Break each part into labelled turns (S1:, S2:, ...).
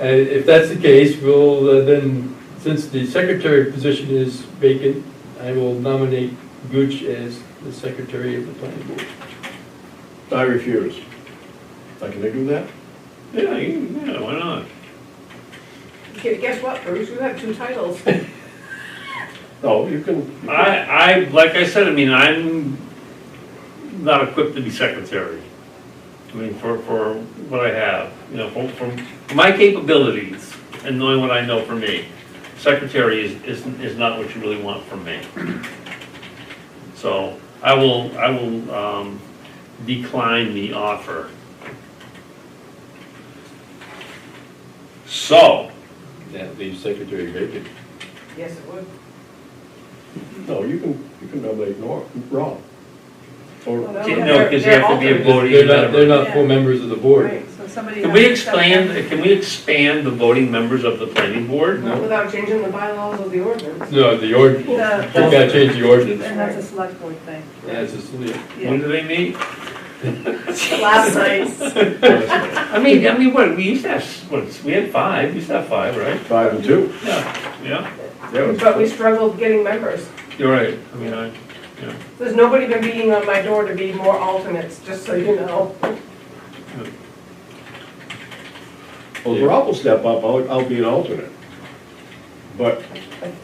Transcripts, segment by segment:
S1: Uh, If that's the case, we'll uh, then, since the secretary position is vacant, I will nominate Gooch as the secretary of the planning board.
S2: I refuse. Now, Can I do that?
S3: Yeah, you- yeah, why not?
S4: Okay, Guess what, Bruce, you have two titles.
S2: No, you can. you can-
S3: I, I, like I said, I mean, I'm not equipped to be secretary. I mean, for, for what I have, you know, from, from my capabilities and knowing what I know for me, secretary is, is, is not what you really want from me. So I will, I will, um, decline the offer. So,
S5: That leaves secretary vacant.
S4: Yes, it would.
S2: No, you can, you can nominate Nor, Rob.
S4: Well,
S2: Or,
S4: that
S3: Can't-
S4: would-
S3: no, 'cause you
S4: they're-
S3: have to be a
S4: they're
S3: voting
S1: They're not,
S3: member.
S1: they're not full members of the
S4: altered.
S1: board.
S4: Right, so somebody.
S3: Can
S4: has
S3: we
S4: to step
S3: expand,
S4: in.
S3: can we expand the voting members of the planning board?
S4: Not without changing the bylaws of the ordinance.
S1: No, the ordinance, you
S4: The-
S1: gotta change the ordinance.
S4: And that's a select board thing.
S1: That's just, yeah.
S3: When do they meet?
S4: Last night's.
S3: I mean, I mean, what, we used to have, what, we had five, we used to have five, right?
S2: five and two.
S3: Yeah. Yeah,
S2: That was-
S4: But we struggled getting members.
S3: you're right, I mean, I,
S4: There's nobody been beating on my door to be more alternates, just so you know.
S2: Well, Rob will step up, I'll, I'll be an alternate. But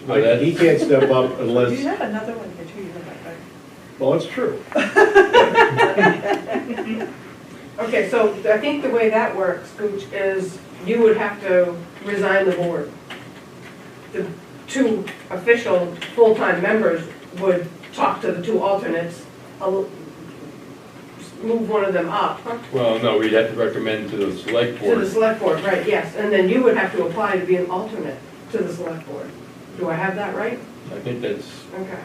S1: Well,
S2: I- he
S1: that's-
S2: can't step up
S6: Do you
S2: unless,
S6: have another one here too, you have that,
S2: well, that's true.
S4: Okay, so I think the way that works, Gooch, is you would have to resign the board. The two official full-time members would talk to the two alternates, al- move one of them up
S1: Well, no, we'd have to recommend to the select
S4: to the
S1: board.
S4: select board, right, yes. And then you would have to apply to be an alternate to the select board. Do I have that right?
S1: I think that's,
S4: Okay.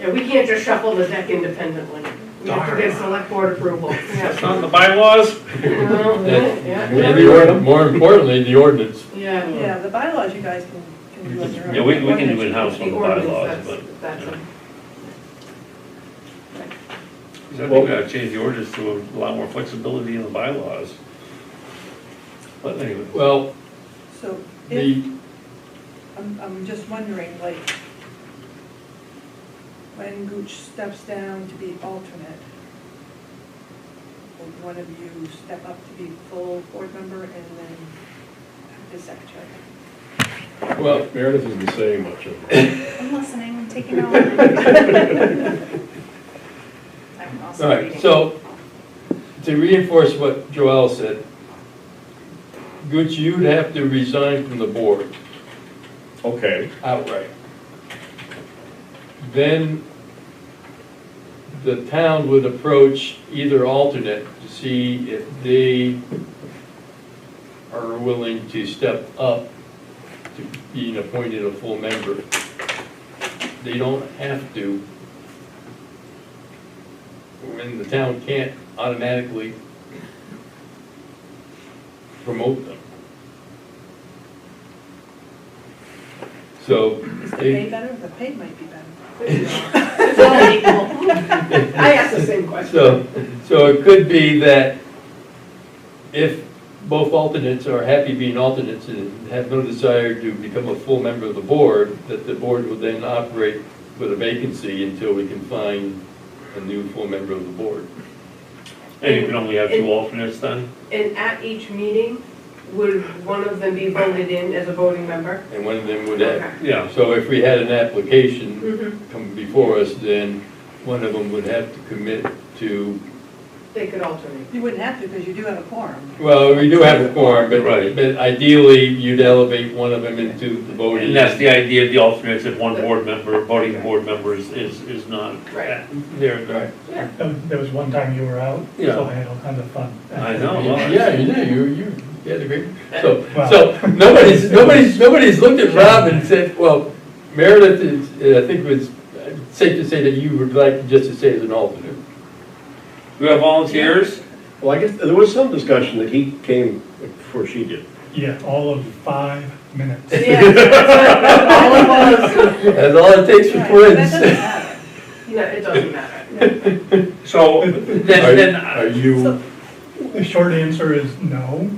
S4: Yeah, we can't just shuffle the deck independently. We have to get select board approval.
S3: that's
S4: Yeah.
S3: not in the bylaws?
S4: Well,
S1: and
S4: yeah.
S1: the ord, more importantly, the ordinance.
S4: Yeah.
S6: but- Yeah, the bylaws you guys can, can do on your own.
S3: Yeah, we, we can do in-house on
S4: The
S3: the
S4: ordinance,
S3: bylaws, but.
S4: that's- that's a-
S3: I think we gotta Uh, change the orders to allow more flexibility in the bylaws. But anyway,
S1: Well,
S6: So, if,
S1: the,
S6: I'm, I'm just wondering, like, when Gooch steps down to be alternate, will one of you step up to be full board member and then act as secretary?
S1: well,
S2: Meredith isn't saying much of it.
S7: I'm listening, I'm taking all. I'm also
S1: all right,
S7: reading.
S1: so to reinforce what Joel said, Gooch, you'd have to resign from the board.
S2: Okay,
S1: outright. Then the town would approach either alternate to see if they are willing to step up to being appointed a full member. They don't have to. When the town can't automatically promote them. So
S6: Is the
S1: They-
S6: pay better? The pay might be better.
S4: It's all equal. I asked the same question.
S1: So, so it could be that if both alternates are happy being alternates and have no desire to become a full member of the board, that the board would then operate with a vacancy until we can find a new full member of the board.
S3: and you can only have two alternates then?
S4: And at each meeting, would one of them be voted in as a voting member?
S1: And one of them would have.
S3: Yeah,
S1: So if we had an application
S4: Mhm.
S1: come before us, then one of them would have to commit to,
S4: They could alternate.
S6: You wouldn't have to, because you do have a quorum.
S1: well, we do have a quorum, but
S3: Right.
S1: but ideally, you'd elevate one of them into the voting.
S3: and that's the idea of the alternates, if one board member, voting board member is, is is not.
S4: Right.
S3: There,
S1: Right.
S8: There Um, there was one time you were out, so
S3: Yeah.
S8: I had all kinds of fun.
S3: I know, well, that's-
S1: Yeah, you know, you, you, you had a great, so,
S8: Wow.
S1: so, nobody's, nobody's, nobody's looked at Rob and said, well, Meredith is, uh, I think it was uh, safe to say that you would like just to say as an alternate.
S3: Do we have volunteers?
S2: well, I guess, there was some discussion that he came before she did.
S8: Yeah, all of five minutes.
S4: All of us.
S1: That's all it takes for
S6: Right, but That doesn't
S1: friends.
S6: matter.
S4: No, it doesn't matter.
S3: So, then,
S1: Are
S3: then,
S1: are you,
S6: So-
S8: The short answer is no,